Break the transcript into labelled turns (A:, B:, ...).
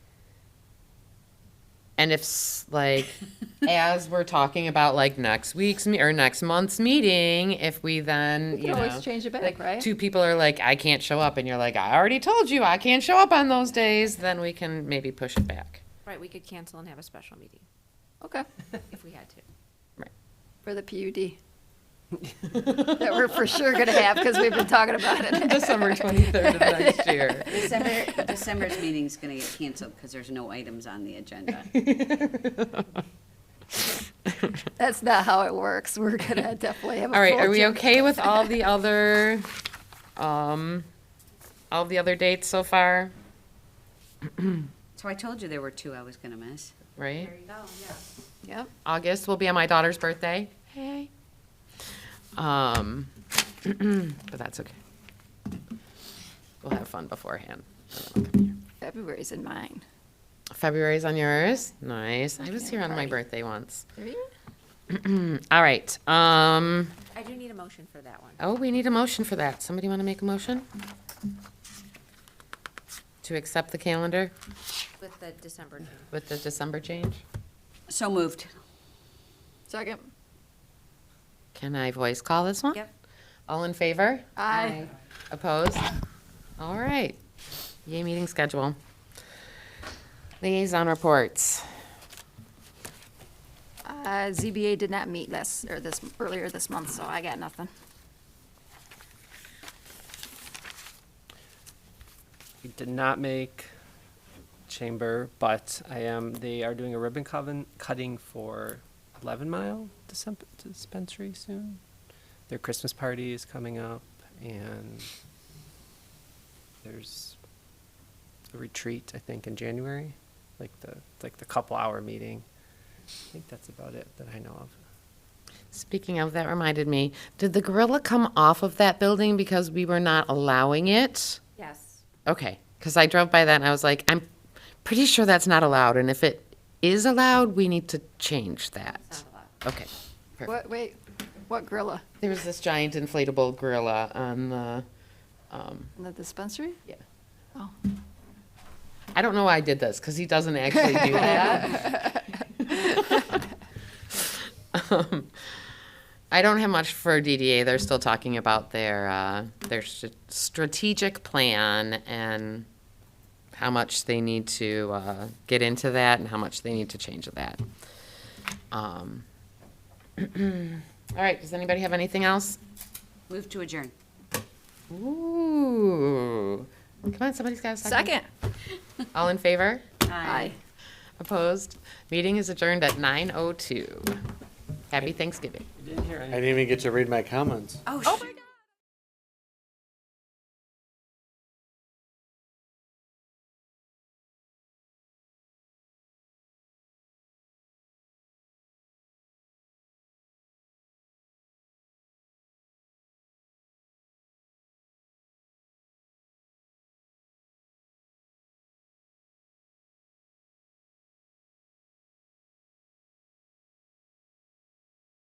A: And if s- like as we're talking about like next week's me- or next month's meeting, if we then
B: You
A: you
B: can
A: know
B: always change it back, right?
A: two people are like I can't show up, and you're like I already told you I can't show up on those days, then we can maybe push it back.
C: Right, we could cancel and have a special meeting
B: Okay,
C: if we had to.
B: for the PUD. That we're for sure gonna have, because we've been talking about it.
A: December twenty third of next year.
D: December, December's meeting's gonna get canceled because there's no items on the agenda.
B: That's not how it works. We're gonna definitely have a.
A: All right,
B: full
A: are we
B: agenda.
A: okay with all the other, um, all the other dates so far,
D: So I told you there were two I was gonna miss.
A: right?
B: Yep.
A: August will be on my daughter's birthday. Hey. Um, but that's okay. We'll have fun beforehand.
B: February's in mine.
A: February's on yours. Nice. I was
B: Okay,
A: here on my
B: party.
A: birthday once.
B: Are you?
A: All right. Um,
C: I do need a motion for that one.
A: oh, we need a motion for that. Somebody want to make a motion? To accept the calendar
C: With the December change.
A: with the December change?
D: So moved.
B: Second.
A: Can I voice call this one?
C: Yep.
A: All in favor?
B: Aye.
A: Opposed? All right. Yay, meeting schedule. Liaison reports.
B: Uh, ZBA did not meet last, or this, earlier this month, so I got nothing.
E: We did not make chamber, but I am, they are doing a ribbon coven, cutting for Eleven Mile Dispen- Dispensary soon. Their Christmas party is coming up and there's a retreat, I think, in January, like the, like the couple hour meeting. I think that's about it that I know of.
A: Speaking of, that reminded me, did the gorilla come off of that building because we were not allowing it?
C: Yes.
A: Okay, because I drove by that and I was like, I'm pretty sure that's not allowed, and if it is allowed, we need to change that.
C: Sound a lot.
A: Okay, perfect.
B: What, wait, what gorilla?
A: There was this giant inflatable gorilla on the, um,
B: In the dispensary?
A: Yeah.
B: Oh.
A: I don't know why I did this because he doesn't actually do that. um, I don't have much for DDA. They're still talking about their uh, their st- strategic plan and how much they need to uh, get into that and how much they need to change of that. Um, all right. Does anybody have anything else?
D: Move to adjourn.
A: Ooh. Come on, somebody's got a second.
B: Second.
A: All in favor?
B: Aye.
A: Opposed? Meeting is adjourned at 9:02. Happy Thanksgiving.
E: I didn't hear
F: I didn't even get to read my comments.
D: Oh, shoot.